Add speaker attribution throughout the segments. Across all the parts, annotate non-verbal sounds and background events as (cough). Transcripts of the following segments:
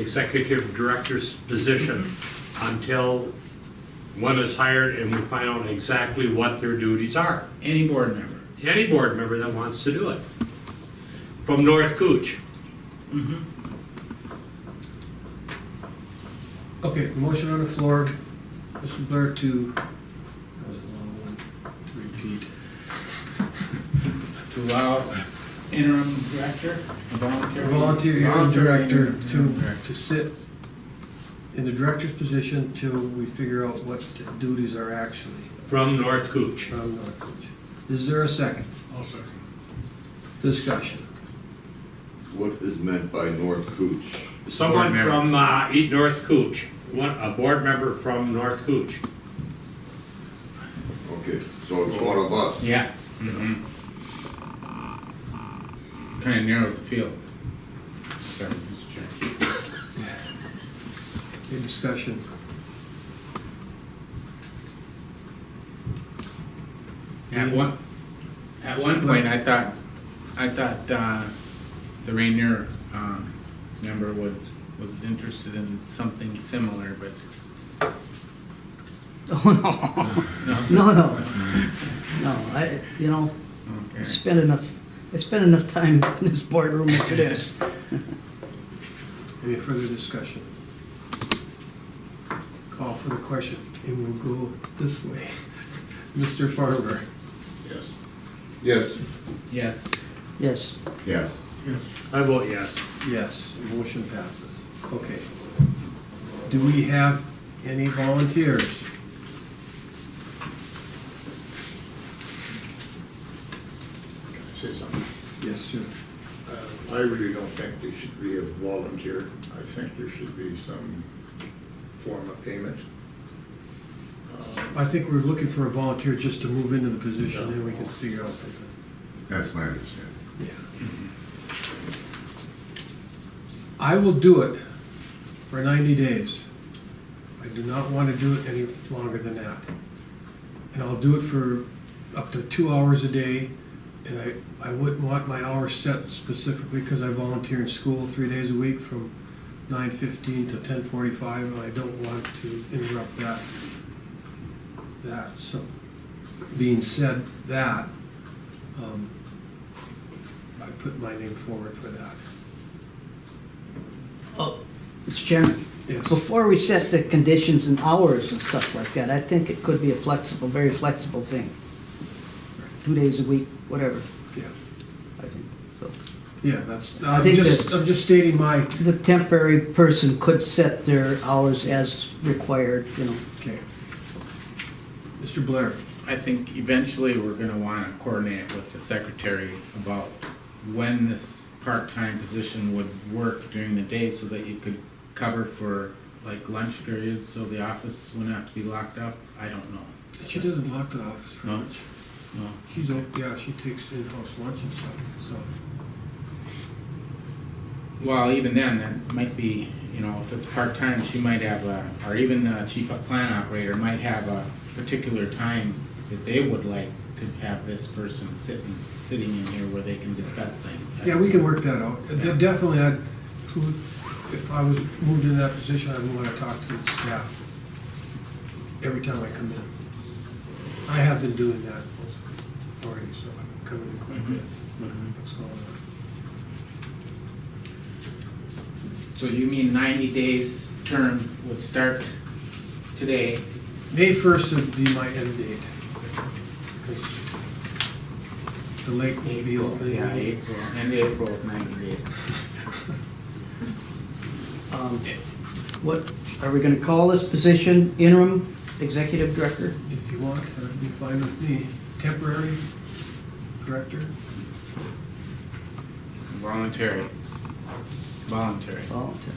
Speaker 1: executive director's position until one is hired and we find out exactly what their duties are.
Speaker 2: Any board member.
Speaker 1: Any board member that wants to do it. From North Cooch.
Speaker 3: Okay, motion on the floor, Mr. Blair to, that was a long one, to repeat.
Speaker 2: To allow interim director, a volunteer.
Speaker 3: Volunteer hearing
Speaker 2: Volunteer
Speaker 3: director
Speaker 2: interim
Speaker 3: to,
Speaker 2: director.
Speaker 3: to sit in the director's position till we figure out what the duties are actually
Speaker 1: From North Cooch.
Speaker 3: from North Coach. Is there a second?
Speaker 2: I'll second.
Speaker 3: Discussion.
Speaker 4: What is meant by North Cooch?
Speaker 1: Someone
Speaker 2: Board member.
Speaker 1: from, uh, E- North Cooch, one, a board member from North Cooch.
Speaker 4: Okay, so it's one of us.
Speaker 2: Yeah. Mm-hmm. Kind of narrows the field. Sorry, Mr. Chair.
Speaker 3: Any discussion?
Speaker 2: At one, at one point, I thought, I thought uh, the Rainier um, member was, was interested in something similar, but. Oh,
Speaker 5: (laughs) No, no, no, I, you know, I
Speaker 2: Okay.
Speaker 5: spend enough, I spend enough time (laughs) in this boardroom as it is.
Speaker 3: Any further discussion? Call for the question, and we'll go this way. (laughs) Mr. Farber?
Speaker 4: Yes. Yes.
Speaker 2: Yes.
Speaker 5: Yes,
Speaker 4: Yes.
Speaker 1: I vote yes.
Speaker 3: Yes, motion passes. Okay. Do we have any volunteers?
Speaker 6: Can I say something?
Speaker 3: Yes, sir.
Speaker 6: Uh, I really don't think there should be a volunteer. I think there should be some form of payment.
Speaker 3: I think we're looking for a volunteer just to move into the position, then we can figure out something.
Speaker 4: That's my understanding.
Speaker 3: Yeah. I will do it for ninety days. I do not want to do it any longer than that. And I'll do it for up to two hours a day, and I, I wouldn't want my hours set specifically because I volunteer in school three days a week from nine fifteen to ten forty-five, and I don't want to interrupt that. That, so, being said that, um, I put my name forward for that.
Speaker 5: oh, Mr. Chairman,
Speaker 3: Yes.
Speaker 5: before we set the conditions and hours and stuff like that, I think it could be a flexible, very flexible thing. Two days a week, whatever,
Speaker 3: Yeah,
Speaker 5: I think, so.
Speaker 3: yeah, that's,
Speaker 5: I
Speaker 3: I'm
Speaker 5: think
Speaker 3: just,
Speaker 5: that-
Speaker 3: I'm just stating my,
Speaker 5: The temporary person could set their hours as required, you know.
Speaker 3: okay. Mr. Blair,
Speaker 2: I think eventually we're gonna wanna coordinate with the secretary about when this part-time position would work during the day so that you could cover for like lunch periods, so the office wouldn't have to be locked up. I don't know.
Speaker 3: she doesn't lock the office for
Speaker 2: No.
Speaker 3: lunch.
Speaker 2: No.
Speaker 3: She's, o- yeah, she takes in-house lunch and stuff, so.
Speaker 2: Well, even then, that might be, you know, if it's part-time, she might have a, or even the chief of plant operator might have a particular time that they would like to have this person sitting, sitting in here where they can discuss things.
Speaker 3: Yeah, we can work that out.
Speaker 2: Yeah.
Speaker 3: De- Definitely, I'd, who- if I was moved in that position, I'd want to talk to the staff every time I come in. I have been doing that already, so I'm coming in quite a bit.
Speaker 2: Mhm.
Speaker 3: What's going on?
Speaker 2: So you mean ninety days term would start today?
Speaker 3: May first would be my end date. 'cause The lake will be open.
Speaker 2: Yeah, April, end of April is ninety days.
Speaker 5: Um, What, are we gonna call this position interim executive director?
Speaker 3: If you want, that'd be fine with me. Temporary director?
Speaker 2: Voluntary. Voluntary,
Speaker 5: Volunteer.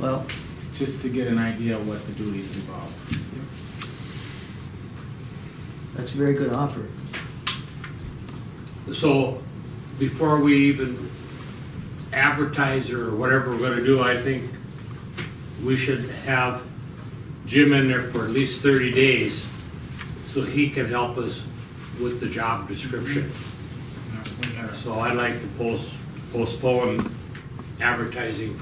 Speaker 5: Well,
Speaker 2: just to get an idea of what the duties involve.
Speaker 5: that's a very good offer.
Speaker 1: So before we even advertise or whatever we're gonna do, I think we should have Jim in there for at least thirty days so he can help us with the job description.
Speaker 2: Now, we gotta-
Speaker 1: So I'd like to post, postpone advertising